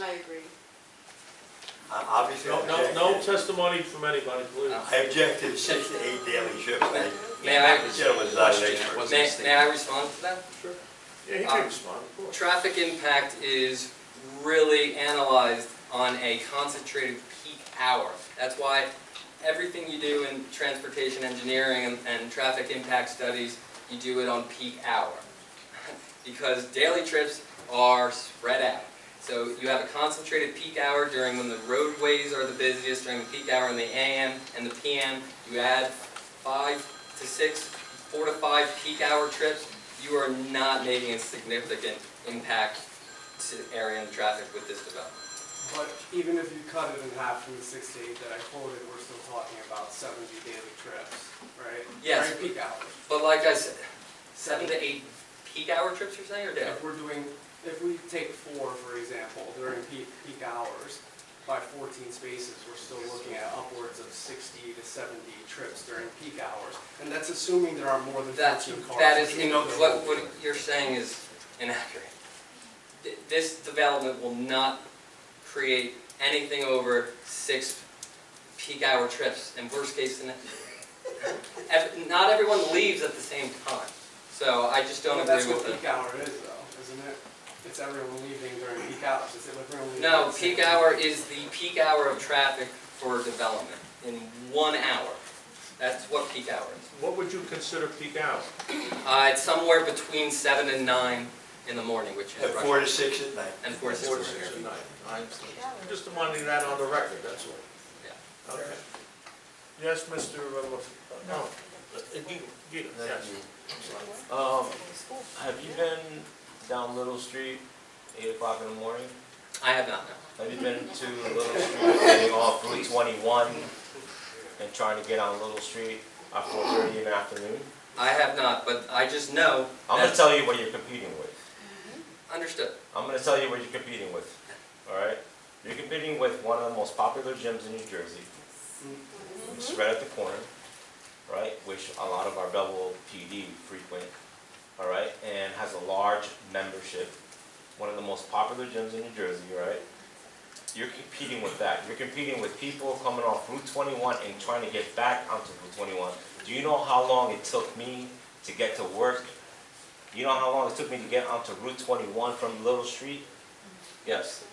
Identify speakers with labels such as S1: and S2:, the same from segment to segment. S1: I agree.
S2: Uh, Obviously, I
S3: No, no, no
S2: objected.
S3: testimony from anybody, please.
S2: I objected to six to eight daily shifts. I-
S4: May I,
S2: That gentleman's not an expert.
S5: What's
S4: may,
S5: this thing?
S4: may I respond to that?
S3: Sure. Yeah, he
S4: Um,
S3: can respond, of course.
S4: Traffic impact is really analyzed on a concentrated peak hour. That's why everything you do in transportation engineering and, and traffic impact studies, you do it on peak hour. Because daily trips are spread out. So you have a concentrated peak hour during when the roadways are the busiest, during the peak hour in the AM and the PM. You add five to six, four to five peak hour trips, you are not making a significant impact to area and traffic with this development.
S6: But even if you cut it in half from the six to eight that I quoted, we're still talking about seventy daily trips, right?
S4: Yes.
S6: During peak hours.
S4: But like I said, seven to eight peak hour trips you're saying, or day?
S6: If we're doing, if we take four, for example, during peak, peak hours, by fourteen spaces, we're still looking at upwards of sixty to seventy trips during peak hours. And that's assuming there are more than
S4: That,
S6: fourteen cars.
S4: that is,
S6: which we
S4: in-
S6: know there
S4: what,
S6: will
S4: what
S6: be.
S4: you're saying is inaccurate. Th- This development will not create anything over six peak hour trips, and worst case, scenario- ev- not everyone leaves at the same time. So I just don't
S6: But
S4: agree
S6: That's
S4: with
S6: what
S4: the
S6: peak hour is though, isn't it? It's everyone leaving during peak hours, is it everyone leaving? at
S4: No,
S6: the same
S4: peak
S6: time?
S4: hour is the peak hour of traffic for development, in one hour. That's what peak hour is.
S3: What would you consider peak hour?
S4: Uh, it's somewhere between seven and nine in the morning, which
S2: At
S4: is rush.
S2: four to six at night.
S4: And four to six.
S3: Four to six at night. I understand. Just wanting that on the record, that's all.
S4: Yeah.
S3: Okay. Yes, Mr. Wolf? No. Uh, Guido, Guido, yes.
S5: Um, have you been down Little Street, eight o'clock in the morning?
S4: I have not, no.
S5: Have you been to Little Street, getting off Route twenty-one and trying to get on Little Street at four thirty in the afternoon?
S4: I have not, but I just know
S5: I'm gonna
S4: that's
S5: tell you what you're competing with.
S4: understood.
S5: I'm gonna tell you what you're competing with, alright? You're competing with one of the most popular gyms in New Jersey, which is right at the corner, right? Which a lot of our Belleville PD frequent, alright? And has a large membership, one of the most popular gyms in New Jersey, right? You're competing with that. You're competing with people coming off Route twenty-one and trying to get back onto Route twenty-one. Do you know how long it took me to get to work you know how long it took me to get onto Route 21 from Little Street? Yes.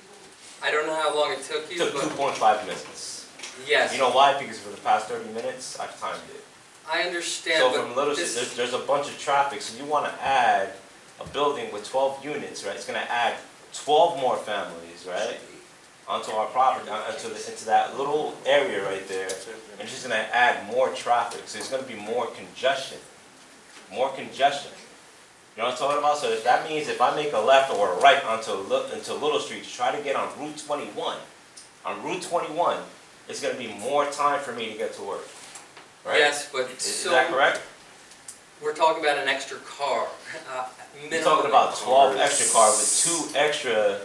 S4: I don't know how long it took
S5: It
S4: you,
S5: took
S4: but
S5: 2.5 minutes.
S4: yes,
S5: You know why? Because for the past 30 minutes, I've timed it.
S4: I understand,
S5: So from
S4: but
S5: Little Street, there's,
S4: this,
S5: there's a bunch of traffic, so you want to add a building with 12 units, right? It's going to add 12 more families, right? Onto our property, on- onto, the- into that little area right there. And it's just going to add more traffic, so it's going to be more congestion. More congestion. You know what I'm talking about? So if that means if I make a left or a right onto Li- into Little Street to try to get on Route 21, on Route 21, it's gonna be more time for me to get to work. Right?
S4: yes, but
S5: Is- Is that
S4: so,
S5: correct?
S4: we're talking about an extra car, uh,
S5: You're
S4: minimum.
S5: talking about 12
S4: cars.
S5: extra cars with two extra,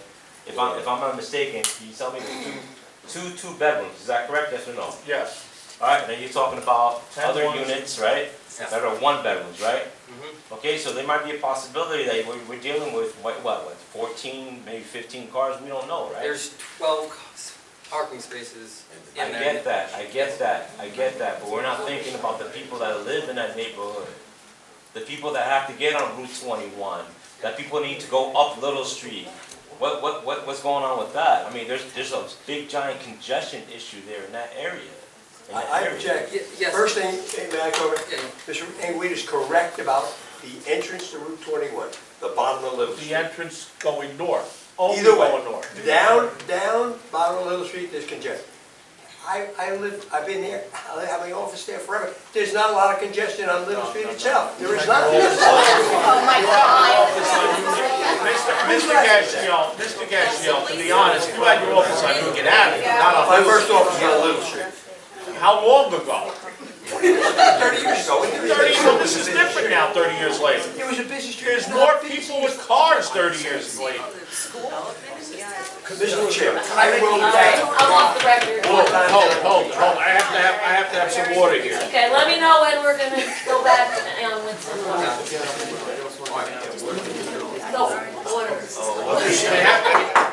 S5: if I'm, if I'm not mistaken, can you tell me there's two, two, two bedrooms, is that correct? Yes or no?
S3: Yes.
S5: Alright, then you're talking about
S3: Ten
S5: other
S3: ones.
S5: units, right?
S4: Yeah.
S5: That are one bedrooms, right?
S4: Mhm.
S5: Okay, so there might be a possibility that we're, we're dealing with, what, what, like fourteen, maybe fifteen cars, we don't know, right?
S4: There's twelve cars- parking spaces
S5: I
S4: in there.
S5: get that, I get that, I get that, but we're not thinking about the people that live in that neighborhood. The people that have to get on Route twenty-one, that people need to go up Little Street. What, what, what, what's going on with that? I mean, there's, there's a big giant congestion issue there in that area. in that
S2: I I
S5: area.
S2: object.
S4: Ye- yes.
S2: First thing, hey, may I go over?
S4: Yeah,
S2: Mr. Engweed is correct about the entrance to Route 21, the bottom of Little
S3: The
S2: Street.
S3: entrance going north, only
S2: Either way.
S3: going north.
S2: Down, down, bottom of Little Street, there's congestion. I, I live, I've been there, I have my office there forever. There's not a lot of congestion on Little Street itself. There is not.
S1: Oh, my
S3: Mr. Gassion, Mr. Gassion, to be honest, you had your office on Union Avenue, not on
S2: My
S3: Little
S2: first office was on Little Street.
S3: Street. How long ago?
S2: 30 years ago. when there was-
S3: Thirty, years- this is different now, thirty years later.
S2: It was a busy street.
S3: There's more people with cars thirty years later.
S2: Mr. Chair, I will back.
S7: I'm off the record.
S3: Hold, hold, hold, hold, I have to have, I have to have some water here.
S7: Okay, let me know when we're gonna go back and with some water. No, water.
S3: They have to,